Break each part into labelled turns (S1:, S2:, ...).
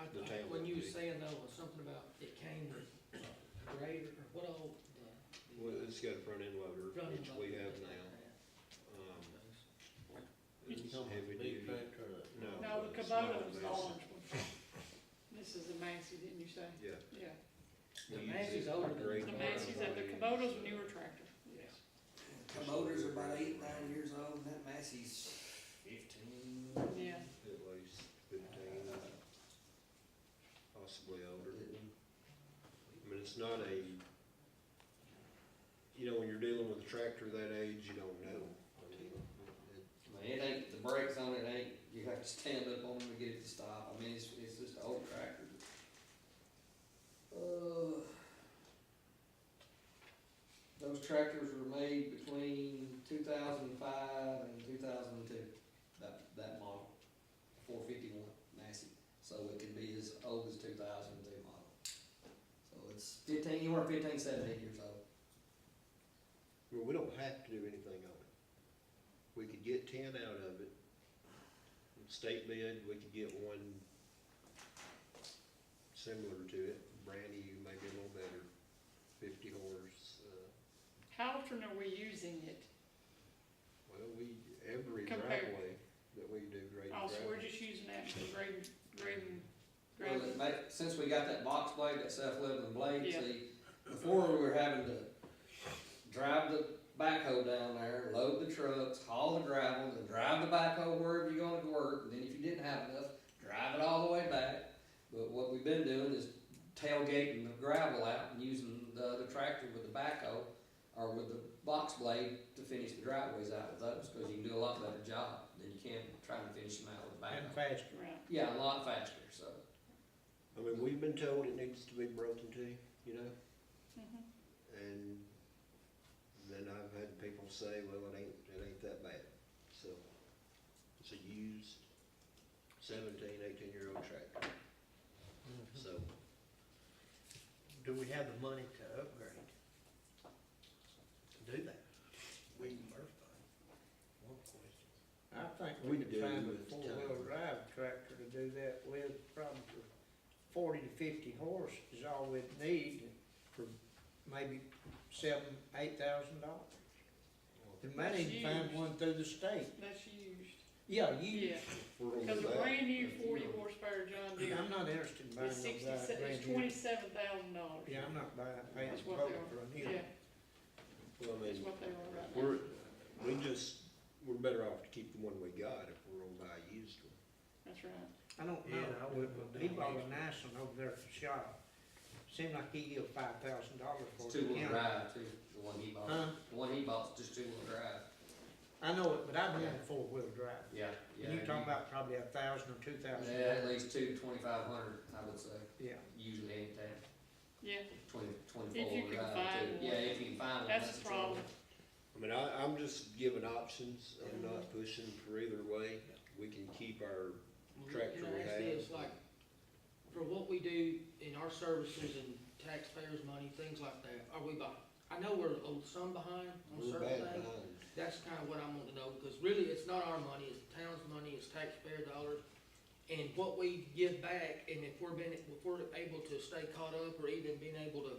S1: I,
S2: The
S1: I,
S2: town
S1: when you
S2: would
S1: were
S2: be.
S1: saying though, was something about it came with a grader, or what old, the. the
S2: Well, it's got a front end loader,
S1: running
S2: which we
S1: bucket
S2: have
S1: that
S2: now. Um,
S1: they had.
S3: You
S2: It's
S3: talking about
S2: heavy
S3: the big
S2: duty.
S3: tractor or the-
S2: No.
S4: No, the
S2: it's not
S4: Kubota was the
S2: a Massey.
S4: orange one. This is the Massey, didn't you say?
S2: Yeah.
S4: Yeah,
S2: We
S1: The
S2: use
S1: Massey's
S2: it for
S1: older than the
S2: grading.
S4: the
S1: Kubota.
S4: Massey's, that- the Kubota's a newer tractor, yes.
S5: Kubota's are about eight, nine years old, and that Massey's fifteen.
S4: Yeah,
S2: At least fifteen, possibly older. I mean, it's not a, you know, when you're dealing with a tractor that age, you don't know. I mean, it-
S5: I mean, it ain't, the brakes on it ain't, you have to stand up on them to get it to stop, I mean, it's, it's just an old tractor. Uh, Those tractors were made between two thousand and five and two thousand and two, that, that model, four fifty-one Massey, so it can be as old as two thousand and two model. So it's fifteen, you were fifteen, seventeen years old,
S2: Well, we don't have to do anything on it. We could get ten out of it. State bid, we could get one similar to it, brand new, maybe a little better, fifty horse, uh,
S4: how often are we using it?
S2: well, we, every
S4: Compared.
S2: driveway that we do grade
S4: Oh, so we're
S2: gravel.
S4: just using that for grading, grading,
S5: Well,
S4: grading.
S5: it ma- since we got that box blade, that self-leveling blade,
S4: Yeah.
S5: see, before we were having to drive the backhoe down there, load the trucks, haul the gravel, then drive the backhoe wherever you're gonna work, and then if you didn't have enough, drive it all the way back. But what we've been doing is tailgating the gravel out and using the other tractor with the backhoe or with the box blade to finish the driveways out with those, cause you can do a lot better job than you can trying to finish them out with a
S3: And
S5: backhoe.
S3: faster.
S4: Right,
S5: Yeah, a lot faster, so.
S2: I mean, we've been told it needs to be broken to, you know,
S4: mhm.
S2: and then I've had people say, well, it ain't, it ain't that bad. So it's a used seventeen, eighteen-year-old tractor, so.
S3: Mm-hmm. Do we have the money to upgrade? To do that? We can first thing. One question. I think
S2: We
S3: we could
S2: do
S3: find a
S2: at the time.
S3: four-wheel drive tractor to do that with, probably for forty to fifty horse is all we'd need for maybe seven, eight thousand dollars. They might even find
S4: Used.
S3: one through the state.
S4: That's used,
S3: Yeah, you,
S4: yeah, because a brand new forty horsepower John Deere
S3: I'm not interested in buying
S4: is
S3: those
S4: sixty,
S3: out brand
S4: it's
S3: new.
S4: twenty-seven thousand dollars.
S3: Yeah, I'm not buying, paying
S4: That's what they
S3: for a new.
S4: Yeah,
S3: one.
S2: Well, I
S4: that's
S2: mean,
S4: what they were right now.
S2: we're, we just, we're better off to keep the one we got if we're gonna buy a used one.
S4: That's right.
S3: I don't
S6: Yeah, I
S3: know,
S6: wouldn't
S3: he
S6: know.
S3: bought a nice one over there at the shop. Seemed like he gave five thousand dollars for it.
S5: It's two-wheel
S3: Yeah.
S5: drive too, the one he bought.
S3: Huh?
S5: The one he bought's just two-wheel drive.
S3: I know it, but I've been a four-wheel drive.
S5: Yeah.
S3: And you're talking about probably a thousand or two thousand.
S5: Yeah, at least two twenty-five hundred, I would say,
S3: Yeah,
S5: usually ain't that,
S4: Yeah,
S5: twenty,
S4: If you can
S5: twenty-four drive
S4: find one.
S5: too. Yeah, if you can find one.
S4: that's the
S5: the trouble.
S4: problem.
S2: I mean, I, I'm just giving options, I'm not pushing for either way. We can keep our
S1: Can
S2: tractor
S1: I
S2: we
S1: ask
S2: have.
S1: this, like, for what we do in our services and taxpayers' money, things like that, are we behind? I know we're a- some behind on
S2: We're bad
S1: certain things.
S2: behind.
S1: That's kind of what I want to know, because really, it's not our money, it's the town's money, it's taxpayer dollars. And what we give back, and if we're been, if we're able to stay caught up, or even being able to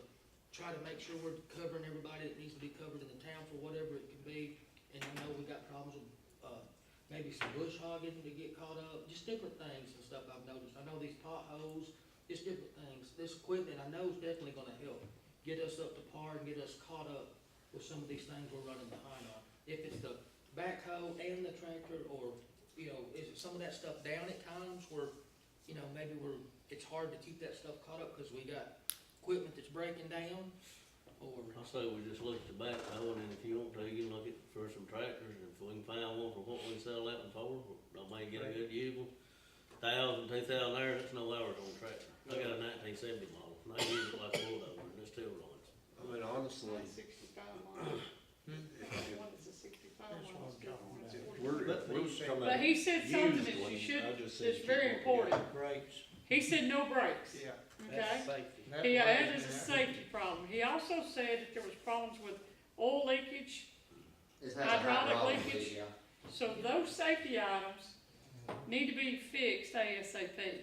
S1: try to make sure we're covering everybody that needs to be covered in the town for whatever it could be. And I know we got problems with, uh, maybe some bush hogging to get caught up, just different things and stuff I've noticed. I know these potholes, just different things. This equipment I know is definitely gonna help get us up to par and get us caught up with some of these things we're running behind on. If it's the backhoe and the tractor, or, you know, is it some of that stuff down at times where, you know, maybe we're, it's hard to keep that stuff caught up because we got equipment that's breaking down, or,
S6: I say we just look at the back row, and if you want to, you can look at for some tractors, and if we can find one for what we sell out in Florida, I may get a good used one. Thousand, two thousand there, that's no hours on a tractor. I got a nineteen seventy model, and I use it like a bulldozer, and it still runs.
S2: I mean, honestly,
S4: Mine's sixty-five mile.
S2: if-
S4: One is a sixty-five
S3: That's what
S4: mile.
S3: I'm talking
S2: if
S3: about.
S2: Hmm? we're, if we're just talking
S4: But he said
S2: about
S4: something
S2: used
S4: that you
S2: ones,
S4: should,
S2: I just said
S4: that's
S2: keep
S4: very
S2: what we got.
S4: important.
S3: brakes,
S4: He said no brakes,
S3: yeah.
S4: okay?
S3: safety.
S4: Yeah, that is a safety problem. He also said that there was problems with oil leakage,
S5: It's has a high
S4: Hydraulic
S5: problem,
S4: leakage.
S5: yeah.
S4: so those safety items need to be fixed ASAP.